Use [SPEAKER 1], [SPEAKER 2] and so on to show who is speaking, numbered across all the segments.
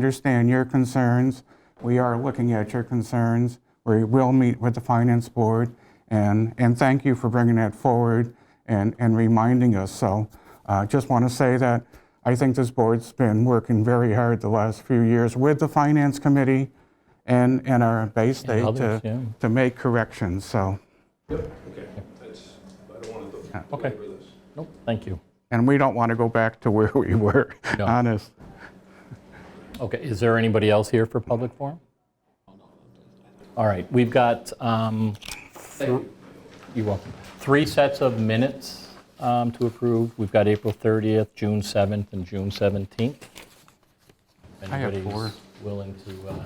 [SPEAKER 1] understand your concerns. We are looking at your concerns. We will meet with the Finance Board, and, and thank you for bringing that forward and, and reminding us. So uh, just want to say that I think this board's been working very hard the last few years with the Finance Committee and, and our Bay State
[SPEAKER 2] others, yeah.
[SPEAKER 1] to, to make corrections, so.
[SPEAKER 3] Okay, that's, I don't want to
[SPEAKER 2] Okay.
[SPEAKER 3] belabor this.
[SPEAKER 2] Nope, thank you.
[SPEAKER 1] And we don't want to go back to where we were,
[SPEAKER 2] No.
[SPEAKER 1] honest.
[SPEAKER 2] Okay, is there anybody else here for public forum? All right, we've got, um, you're welcome, three sets of minutes um, to approve. We've got April 30th, June 7th, and June 17th. If
[SPEAKER 1] I have
[SPEAKER 2] anybody's
[SPEAKER 1] four.
[SPEAKER 2] willing to, uh,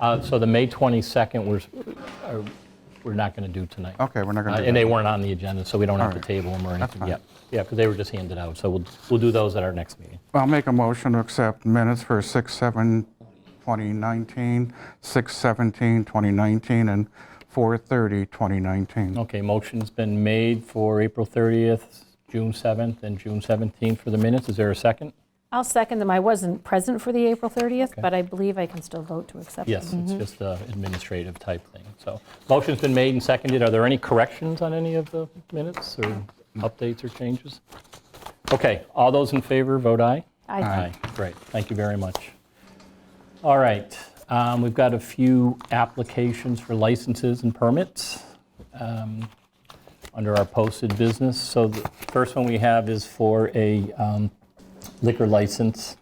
[SPEAKER 2] uh, so the May 22nd, we're, s- are- we're not going to do tonight.
[SPEAKER 1] Okay, we're not going
[SPEAKER 2] Uh,
[SPEAKER 1] to.
[SPEAKER 2] And they weren't on the agenda, so we don't have to
[SPEAKER 1] All right.
[SPEAKER 2] table them or anything
[SPEAKER 1] fine.
[SPEAKER 2] yet. Yeah, because they were just handed out, so we'll, we'll do those at our next meeting.
[SPEAKER 1] I'll make a motion to accept minutes for 6/7/2019, 6/17/2019, and 4/30/2019.
[SPEAKER 2] Okay, motion's been made for April 30th, June 7th, and June 17th for the minutes. Is there a second?
[SPEAKER 4] I'll second them. I wasn't present for the April 30th, but I believe I can still vote to accept them.
[SPEAKER 2] Yes, it's just an administrative type thing. So, motion's been made and seconded. Are there any corrections on any of the minutes or updates or changes? Okay, all those in favor, vote aye.
[SPEAKER 4] I
[SPEAKER 2] Aye, great, thank you very much. All right, um, we've got a few applications for licenses and permits um, under our posted business. So the first one we have is for a um, liquor license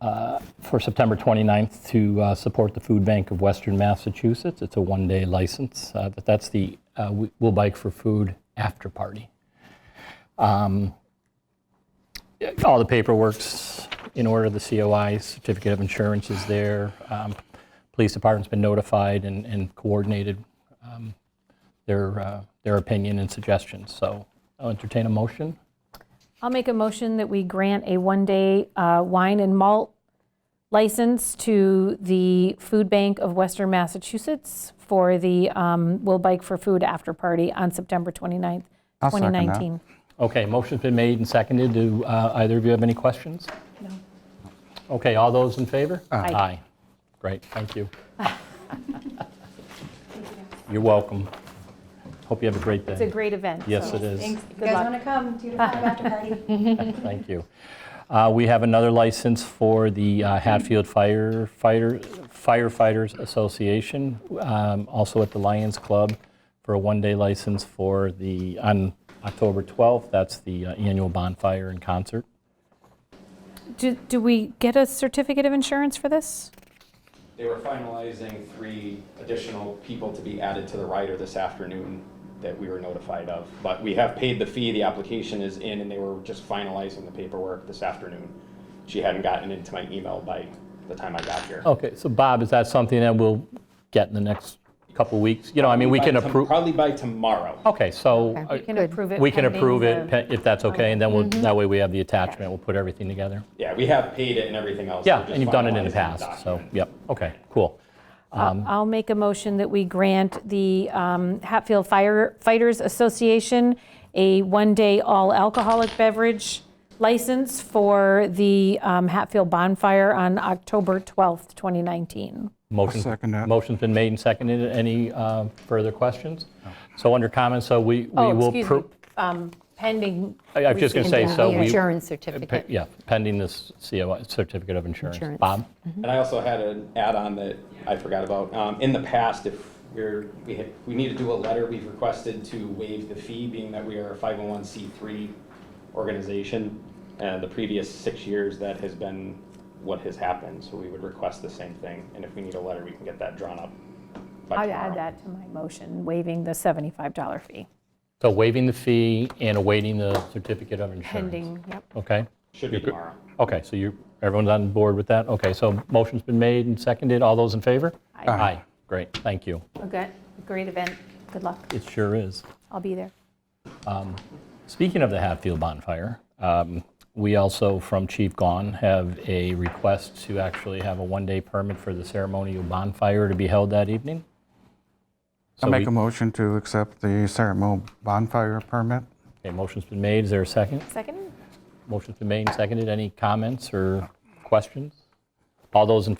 [SPEAKER 2] uh, for September 29th to uh, support the Food Bank of Western Massachusetts. It's a one-day license, uh, but that's the uh, We- We'll Bike for Food after party all the paperwork's in order, the COI, certificate of insurance is there. Um, Police department's been notified and- and coordinated um, their uh, their opinion and suggestions, so I'll entertain a motion.
[SPEAKER 4] I'll make a motion that we grant a one-day uh, wine and malt license to the Food Bank of Western Massachusetts for the um, Will Bike for Food After Party on September 29th,
[SPEAKER 1] I'll second that.
[SPEAKER 4] 2019.
[SPEAKER 2] Okay, motion's been made and seconded. Do uh, either of you have any questions? No. Okay, all those in favor?
[SPEAKER 4] Aye.
[SPEAKER 2] Aye. Great, thank you. You're welcome. Hope you have a great day.
[SPEAKER 4] It's a great event.
[SPEAKER 2] Yes,
[SPEAKER 4] so
[SPEAKER 2] it is.
[SPEAKER 5] Thanks. If
[SPEAKER 4] Good
[SPEAKER 5] you guys
[SPEAKER 4] luck. Ah.
[SPEAKER 5] want to come to the after party,
[SPEAKER 2] Thank you. Uh, We have another license for the uh, Hatfield Firefighter- Firefighters Association, um, also at the Lions Club, for a one-day license for the, on October 12th, that's the uh, annual bonfire and concert.
[SPEAKER 4] Do do we get a certificate of insurance for this?
[SPEAKER 6] They were finalizing three additional people to be added to the rider this afternoon that we were notified of. But we have paid the fee, the application is in, and they were just finalizing the paperwork this afternoon. She hadn't gotten into my email by the time I got here.
[SPEAKER 2] Okay, so Bob, is that something that we'll get in the next couple weeks? You know, I mean, we
[SPEAKER 6] By
[SPEAKER 2] can
[SPEAKER 6] tom-
[SPEAKER 2] approve,
[SPEAKER 6] Probably by tomorrow.
[SPEAKER 2] okay, so
[SPEAKER 4] We
[SPEAKER 2] uh,
[SPEAKER 4] can approve it.
[SPEAKER 2] we can
[SPEAKER 4] pending
[SPEAKER 2] approve
[SPEAKER 4] the- Mm-hmm.
[SPEAKER 2] it pe- if that's okay, and then we'll, that way we have the attachment, we'll put everything together.
[SPEAKER 6] Yeah, we have paid it and everything else.
[SPEAKER 2] Yeah,
[SPEAKER 6] We're just
[SPEAKER 2] and you've done it in the
[SPEAKER 6] finalizing
[SPEAKER 2] past, so,
[SPEAKER 6] document.
[SPEAKER 2] yep, okay, cool.
[SPEAKER 4] I'll make a motion that we grant the um, Hatfield Firefighters Association a one-day all-alcoholic beverage license for the um, Hatfield Bonfire on October 12th, 2019.
[SPEAKER 2] Motion-
[SPEAKER 1] second that.
[SPEAKER 2] Motion's been made and seconded. Any uh, further questions? So under comments, so we we will...
[SPEAKER 4] Oh, excuse me,
[SPEAKER 2] pro-
[SPEAKER 4] um, pending.
[SPEAKER 2] I I was just going to say,
[SPEAKER 7] Pending
[SPEAKER 2] so
[SPEAKER 7] the
[SPEAKER 2] we,
[SPEAKER 7] Insurance
[SPEAKER 2] pe-
[SPEAKER 7] certificate.
[SPEAKER 2] yeah, pending this COI, certificate of insurance.
[SPEAKER 7] Insurance.
[SPEAKER 2] Bob?
[SPEAKER 4] Mm-hmm.
[SPEAKER 6] And I also had an add-on that I forgot about. Um, In the past, if we're, we had- we need to do a letter, we've requested to waive the fee, being that we are a 501c3 organization. And the previous six years, that has been what has happened, so we would request the same thing. And if we need a letter, we can get that drawn up by
[SPEAKER 4] I'd
[SPEAKER 6] tomorrow.
[SPEAKER 4] add that to my motion, waiving the $75 fee.
[SPEAKER 2] So waiving the fee and awaiting the certificate of insurance.
[SPEAKER 4] Pending, yep.
[SPEAKER 2] Okay,
[SPEAKER 6] Should be
[SPEAKER 2] You're good.
[SPEAKER 6] tomorrow.
[SPEAKER 2] okay, so you, everyone's on board with that? Okay, so motion's been made and seconded. All those in favor?
[SPEAKER 4] Aye. Aye.
[SPEAKER 2] Aye, great, thank you.
[SPEAKER 4] Okay, great event. Good luck.
[SPEAKER 2] It sure is.
[SPEAKER 4] I'll be there.
[SPEAKER 2] Speaking of the Hatfield bonfire, um, we also, from Chief Gahn, have a request to actually have a one-day permit for the ceremonial bonfire to be held that evening. So
[SPEAKER 1] I'll make
[SPEAKER 2] we-
[SPEAKER 1] a motion to accept the ceremonial bonfire permit.
[SPEAKER 2] Okay, motion's been made. Is there a second?
[SPEAKER 4] Second?
[SPEAKER 2] Motion's been made and seconded. Any comments or questions? All those in